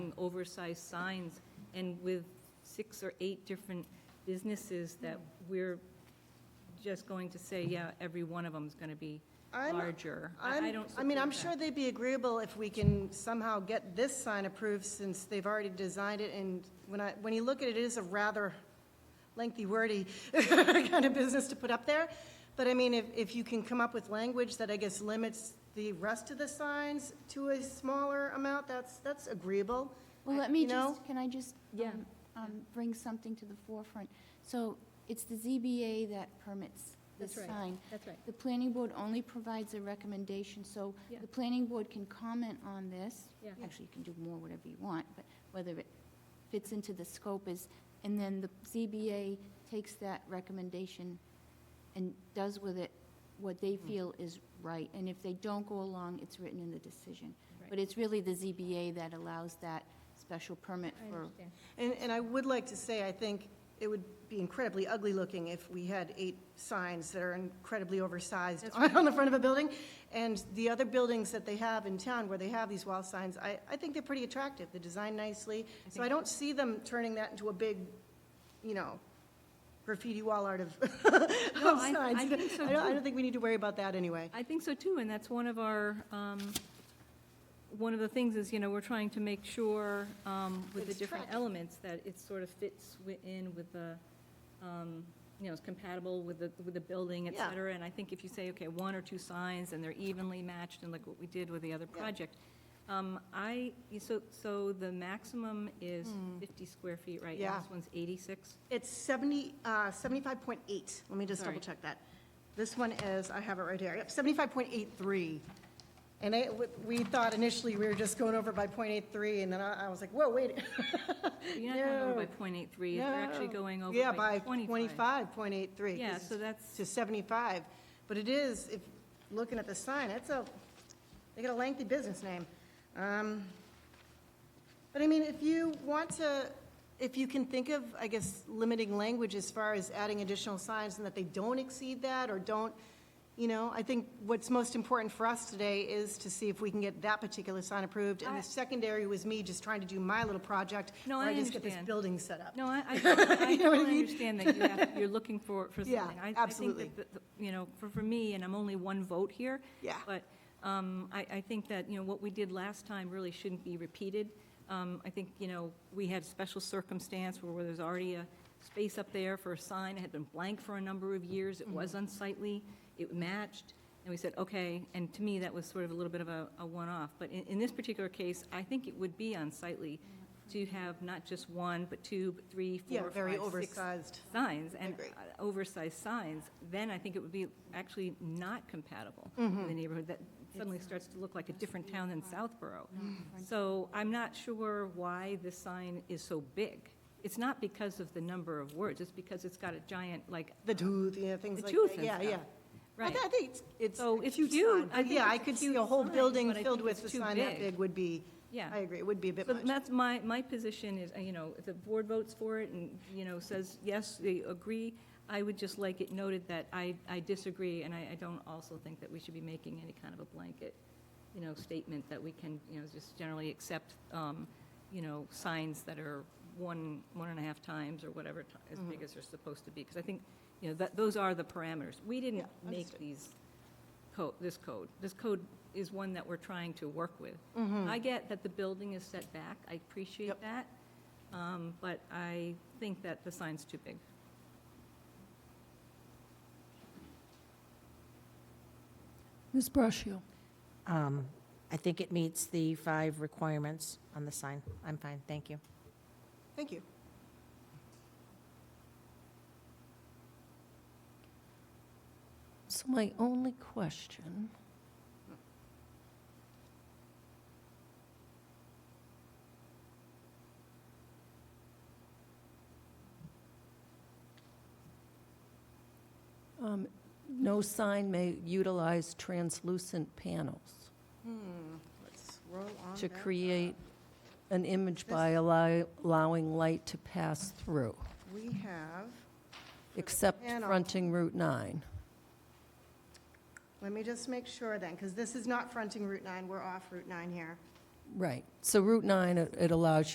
oversized signs, and with six or eight different businesses that we're just going to say, yeah, every one of them's gonna be I'm- larger. I- I I'm, don't I mean, I'm support sure that. they'd be agreeable if we can somehow get this sign approved, since they've already designed it, and when I, when you look at it, it is a rather lengthy wordy kind of business to put up there. But I mean, if, if you can come up with language that I guess limits the rest of the signs to a smaller amount, that's, that's agreeable. Well, I- let me you know? just, can I just? Yeah. um, um, Bring something to the forefront. So it's the ZBA that permits the That's right. sign. That's right. The planning board only provides a recommendation, so Yeah. the planning board can comment on this. Yeah. Actually, you can do more, whatever you want, but whether it fits into the scope is, and then the ZBA takes that recommendation and does with it what they Mm. feel is right. And if they don't go along, it's written in the decision. But Right. it's really the ZBA that allows that special permit I for, understand. And, and I would like to say, I think it would be incredibly ugly looking if we had eight signs that are incredibly oversized on on the front of a building. And the other buildings that they have in town where they have these wall signs, I, I think they're pretty attractive. They're designed nicely. So I don't see them turning that into a big, you know, graffiti wall art of, of I- I signs. think so, I don't, I too. don't think we need to worry about that anyway. I think so too, and that's one of our, um, one of the things is, you know, we're trying to make sure um, with the It's different tracked. elements that it sort of fits wi- in with the, um, you know, it's compatible with the, with the building, et Yeah. cetera. And I think if you say, okay, one or two signs and they're evenly matched and like what we did with the other Yeah. project. Um, I, so, so the maximum is 50 square feet, right? And Hmm. Yeah. This one's 86? It's 70, uh, 75.8, let me just Sorry. double check that. This one is, I have it right here, yep, 75.83. And I, we thought initially we were just going over by .83, and then I I was like, whoa, wait. You're not going over by No. .83, you're actually No. going over Yeah, by by 25. 25.83. Yeah, 'cause so that's- To 75, but it is, if, looking at the sign, it's a, they got a lengthy business name. Um, But I mean, if you want to, if you can think of, I guess, limiting language as far as adding additional signs and that they don't exceed that or don't, you know, I think what's most important for us today is to see if we can get that particular sign approved. And I- the secondary was me just trying to do my little project. No, where I just get this understand. building set up. No, I, I, I You know what I totally mean? understand that you have, you're looking for, for something. Yeah, I- I absolutely. think that, the- the- you know, for, for me, and I'm only one vote here. Yeah. But, um, I, I think that, you know, what we did last time really shouldn't be repeated. Um, I think, you know, we had special circumstance where there's already a space up there for a sign, it had been blank for a number of years, it Mm-hmm. was unsightly, it matched, and we said, okay, and to me, that was sort of a little bit of a, a one-off. But in, in this particular case, I think it would be unsightly to have not just one, but two, but three, Yeah, four, very five, six oversized. signs and agree. uh, oversized signs, then I think it would be actually not compatible Mm-hmm. in the neighborhood that suddenly starts to look like a different town than Southborough. So I'm not sure why this sign is so big. It's not because of the number of words, it's because it's got a giant, like, The tooth, yeah, things The like that. tooth and Yeah, stuff. yeah. I right. thi- I think it's, it's So a it's huge huge. sign. I think Yeah, I it's a could see huge a whole sign, building but I filled think with it's a too sign that big. big would be, Yeah. I agree, it would be a bit So much. that's my, my position is, uh, you know, if the board votes for it and, you know, says, yes, they agree, I would just like it noted that I, I disagree, and I, I don't also think that we should be making any kind of a blanket, you know, statement that we can, you know, just generally accept, um, you know, signs that are one, one and a half times or whatever, ti- as big as they're supposed to be, because I think, you know, that, those are the parameters. We didn't Yeah, make understood. these code, this code. This code is one that we're trying to work with. I get that the building is set back, I appreciate Mm-hmm. Yep. that, um, but I think that the sign's too big. Ms. Brashio? Um, I think it meets the five requirements on the sign. I'm fine, thank you. Thank you. So my only question, um, no sign may utilize translucent panels Hmm, Let's roll on to back. create an image by allow- allowing light to pass through, We have, except panel. fronting Route 9. let me just make sure then, because this is not fronting Route 9, we're off Route 9 here. Right. So Route 9, it it allows